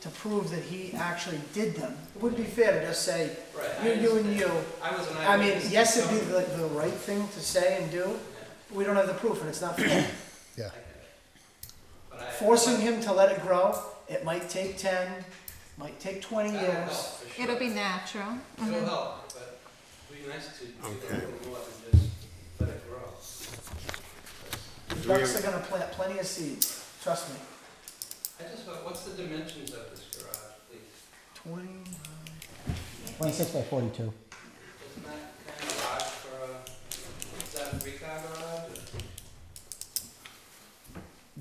to prove that he actually did them. It wouldn't be fair to just say, Right, I you're you and you. understand. I was an I mean, eyewitness. yes, it'd be so- the, the right thing to say and do, but we don't have the proof and it's not fair. I get it. But I- Forcing him to let it grow, it might take ten, might take twenty That'll help, years. for sure. It'll be Mhm. natural. Mm-hmm. It'll help, but it'd be nice to do a little more than just let it grow. The Ducks are gonna plant plenty of seeds, trust me. I just, want- what's the dimensions of this garage, please? Twenty, Twenty-six by forty-two. Isn't that kind of large for a, is that a three-car garage? or-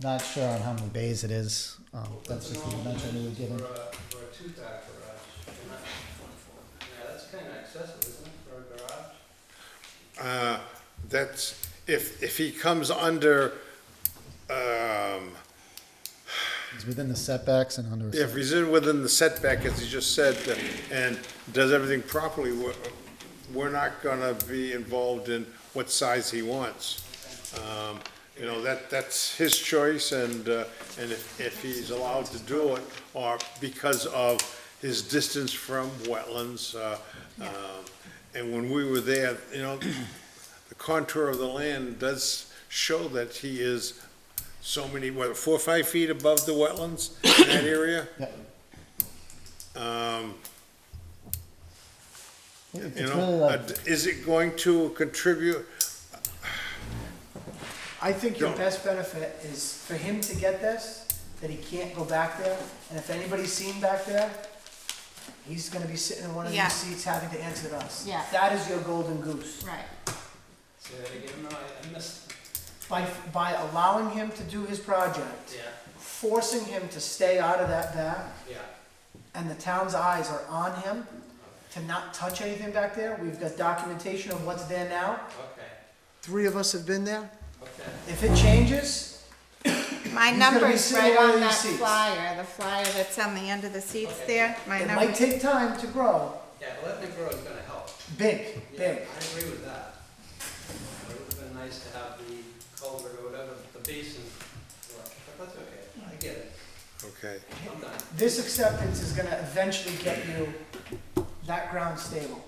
Not sure on how many bays it is. Um, that's What's the just the normal dimension we were dimensions given. For a, for a two-car garage, You're not- yeah, that's kind of excessive, isn't it, for a garage? Uh, That's, if, if he comes under, um, It's within the setbacks and under. a if set- he's in within the setback, as he just said, and does everything properly, we're, we're not gonna be involved in what size he wants. Um, You know, that, that's his choice, and, uh, and if, if he's allowed to do it, or because of his distance from wetlands, uh, um, and when we were there, you know, the contour of the land does show that he is so many, what, four, or five feet above the wetlands in that area? Yep. Um, It- you It's really know, like, uh, is it going to contribute? I think your Don't. best benefit is for him to get this, that he can't go back there, and if anybody's seen back there, he's gonna be sitting in one of Yeah. these seats having to answer to us. Yeah. That is your golden goose. Right. Say that again, no, I I missed, By, by allowing him to do his project, yeah, forcing him to stay out of that back, yeah. and the town's eyes are on him to not touch anything back there, we've got documentation of what's there now, Okay, three of us have been there. okay. If it changes, My He's gonna be number's sitting right on on these that seats. flyer, the flyer that's on the end of the seats Okay. there. My it might number, take time to grow, Yeah, letting it grow is gonna help. big, Yeah, big. I agree with that. It would have been nice to have the culvert or whatever, the basin, work, but that's okay, I get it, Okay, I'm done. This acceptance is gonna eventually get you that ground stable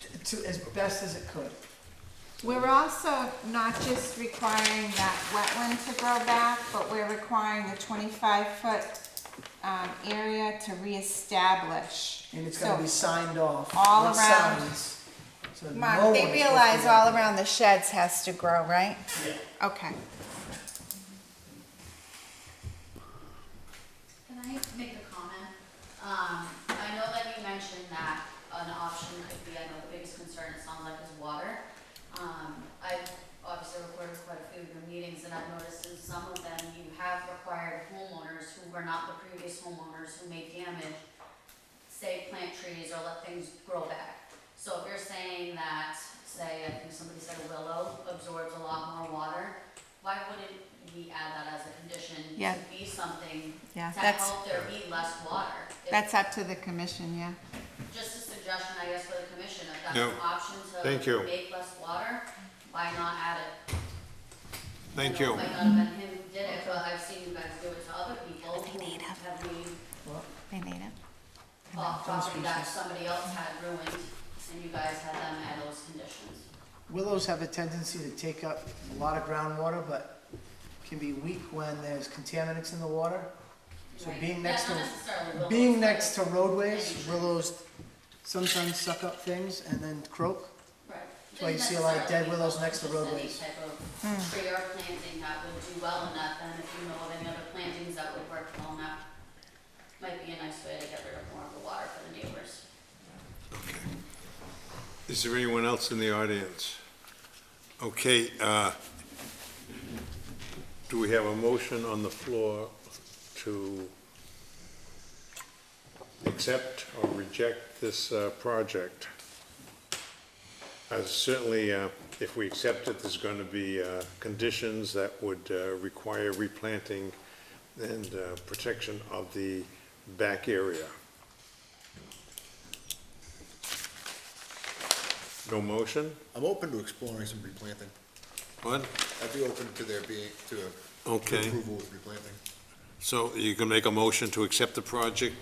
t- to as best as it could. we're also not just requiring that wetland to grow back, but we're requiring the twenty-five foot, um, area to reestablish. And it's gonna be signed off. all with around. signs, so that no Mark, one- they realize all around the sheds has to grow, right? Yeah. Okay. Can I make a comment? Um, I know that you mentioned that an option could be, I know the biggest concern it sounds like is water. Um, I've obviously recorded quite a few of your meetings and I've noticed in some of them you have required homeowners who were not the previous homeowners who made damage, say plant trees or let things grow back. So if you're saying that, say, I think somebody said a willow absorbs a lot more water, why wouldn't we add that as a condition Yeah. to be something Yeah, to that's- help there be less water. If- That's up to the commission, yeah. Just a suggestion, I guess, for the commission, if that's No. an option Thank to you. make less water, why not add it? thank I know you. It might not have been him who did it, but I've seen you guys do it to other people They need it. who have maybe They need it. bought property that somebody else had ruined, and you guys had them at those conditions. Willows have a tendency to take up a lot of groundwater, but can be weak when there's contaminants in the water. So Right. being Yeah, next to, not necessarily willows, being but- next to roadways, willows sometimes suck up things and then croak. Right. That's why you see a lot of dead Didn't necessarily willows be next to just any roadways. type of Tree or planting that would do well enough, and if you know of any other plantings that would work well enough, might be a nice way to get rid of more of the water for the neighbors. Is there anyone else in the audience? Okay, uh, do we have a motion on the floor to accept or reject this uh, project? Uh, Certainly, uh, if we accept it, there's going to be uh, conditions that would uh, require replanting and uh, protection of the back area. No motion? I'm open to exploring some replanting. What? I'd be open to there being, to a- to Okay. approval with replanting. So you can make a motion to accept the project